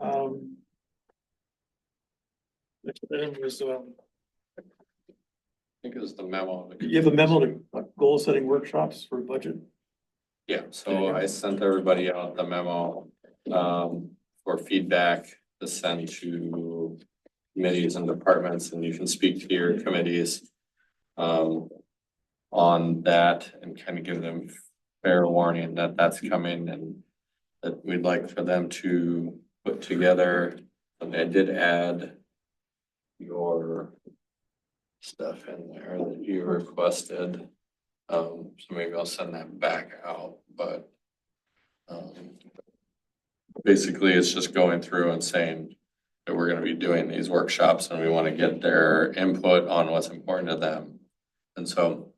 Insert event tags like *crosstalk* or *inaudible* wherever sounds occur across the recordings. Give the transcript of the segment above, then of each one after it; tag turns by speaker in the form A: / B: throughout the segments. A: Um, Then was, um,
B: think it was the memo. that-
A: you have a memo to uh, goal-setting workshops for budget?
B: Yeah, so I sent everybody out the memo um for feedback to send to committees and departments, and you can speak to your committees um on that and kind of give them fair warning that that's coming and that we'd like for them to put together, and I did add your stuff in there that you requested. Um, so maybe I'll send that back out, but. um, Basically, it's just going through and saying that we're gonna be doing these workshops and we wanna get their input on what's important to them. And so,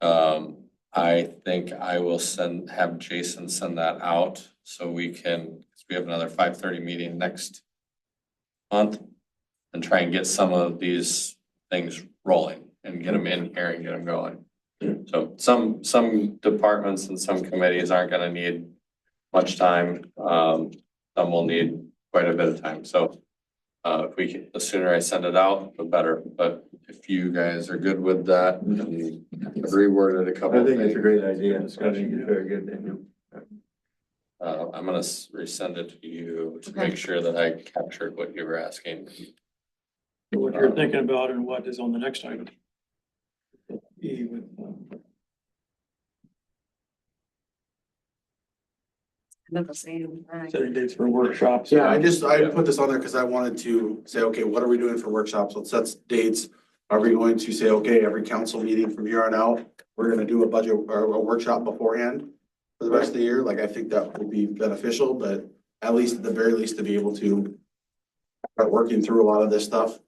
B: um, I think I will send, have Jason send that out so we can, because we have another five thirty meeting next month. And try and get some of these things rolling and get them in here and get them going. So some, some departments and some committees aren't gonna need much time. Um, some will need quite a bit of time, so. Uh, if we, can- the sooner I send it out, the better, but if you guys are good with that and I've reworded a couple
C: I
B: of
C: think it's a
B: things.
C: great idea, it's gonna be very good, Daniel.
B: Uh, I'm gonna s- resend it to you to make sure that I captured what you were asking.
A: What you're thinking about and what is on the next item? E with, um,
D: Another same, all right.
A: setting dates for workshops.
E: Yeah,
A: *laughs*
E: I just, I put this on there because I wanted to say, okay, what are we doing for workshops? Let's set dates. Are we going to say, okay, every council meeting from here on out, we're gonna do a budget or a workshop beforehand? For the rest of the year, like I think that would be beneficial, but at least, at the very least, to be able to. Start working through a lot of this stuff.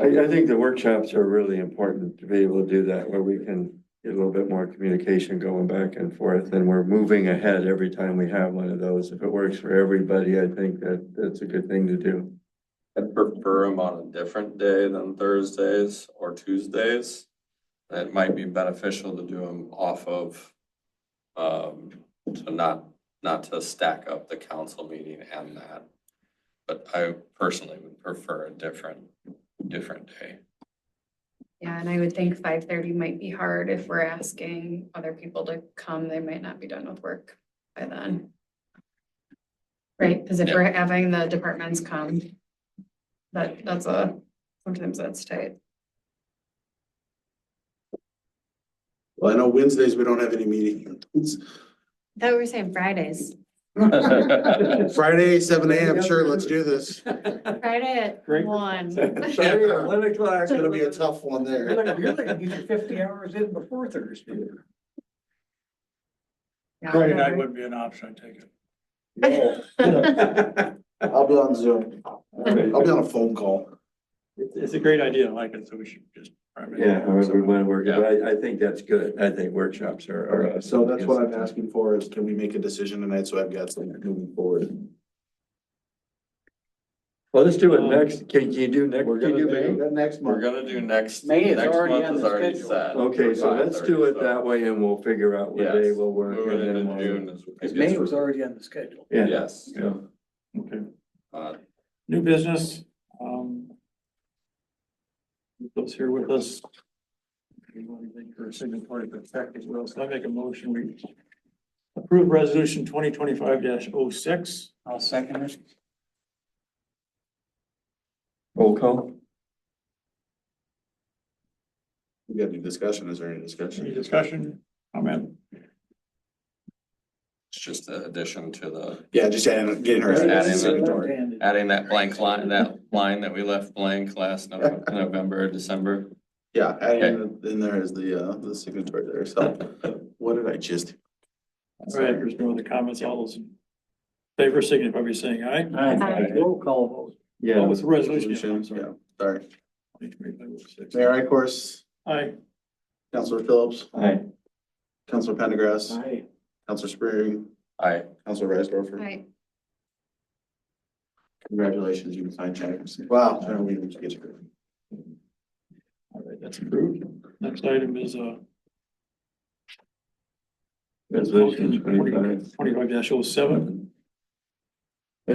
C: I, I think the workshops are really important to be able to do that, where we can get a little bit more communication going back and forth, and we're moving ahead every time we have one of those. If it works for everybody, I think that, that's a good thing to do.
B: *laughs* I'd prefer them on a different day than Thursdays or Tuesdays. It might be beneficial to do them off of, um, to not, not to stack up the council meeting and that. But I personally would prefer a different, different day.
D: Yeah, and I would think five thirty might be hard if we're asking other people to come, they might not be done with work by then. Right, because if we're having the departments come, that, that's a, sometimes that's tight.
E: Well, I know Wednesdays, we don't have any meetings.
D: That we were saying Fridays,
E: Friday, seven AM, sure, let's do this.
D: Friday at
A: Great. *laughs*
D: one.
E: Sorry, eleven o'clock. It's gonna be a tough one
F: You're
E: there.
F: gonna, you're gonna get your fifty hours in before Thursday.
A: Friday night wouldn't be an option, I take
E: *laughs*
A: it. *laughs*
E: I'll be on Zoom. I'll be on a phone call.
A: It's, it's a great idea, I like it, so we should just.
C: Yeah, however we wanna work it, but I, I think that's good. I think workshops are.
E: All
C: are-
E: right, so that's what I'm asking for is can we make a decision tonight? So I've got some moving forward.
C: Well, let's do it next. Can, can you do next?
B: Um, We're
C: can you
B: gonna
C: do May?
B: do-
E: That next
B: We're
E: month.
B: gonna do next,
F: May is
B: next
F: already
B: month
F: on
B: is
F: the
B: already
F: schedule.
B: set.
C: Okay, so let's do it that way and we'll figure out what day
B: Yes.
C: we'll work.
B: Moving
C: and then
B: into
C: we'll-
B: June is.
F: Because May was already on the schedule.
C: Yeah,
B: Yes,
C: yeah.
A: Okay,
B: uh,
A: new business, um. Those here with us. Anyone think for signatory to effect as well, so I make a motion, we approve resolution twenty twenty-five oh 6
F: I'll second it.
C: Roll call.
E: We got any discussion? Is there any
A: Any
E: discussion?
A: discussion, comment?
B: it's just an addition to the,
E: Yeah, just adding, getting her.
B: Just add
E: added
B: in the-
E: signatory.
F: Left-handed.
B: adding that blank line, that line that we left blank last November, November, December.
E: Yeah, adding in there is the, uh, the signatory there. So what did I just?
A: All right, there's no other comments, all those. in Favor signify by saying aye.
F: Aye. Roll call vote.
A: Oh,
C: Yeah,
A: it's a resolution, yeah, I'm sorry.
E: Yeah, sorry.
A: 2025-06.
E: Mayor Ikorst,
A: Aye,
E: Counselor Phillips,
C: aye.
E: Counselor Pendergrass,
F: Aye.
E: Counselor Spring,
B: I,
E: Counselor Risedorfer.
D: Right,
E: Congratulations, you can sign checks. Wow. I don't even get you.
A: all right, that's approved. Next item is, uh,
C: Resolution 25. né?
A: Twenty-five dash oh seven,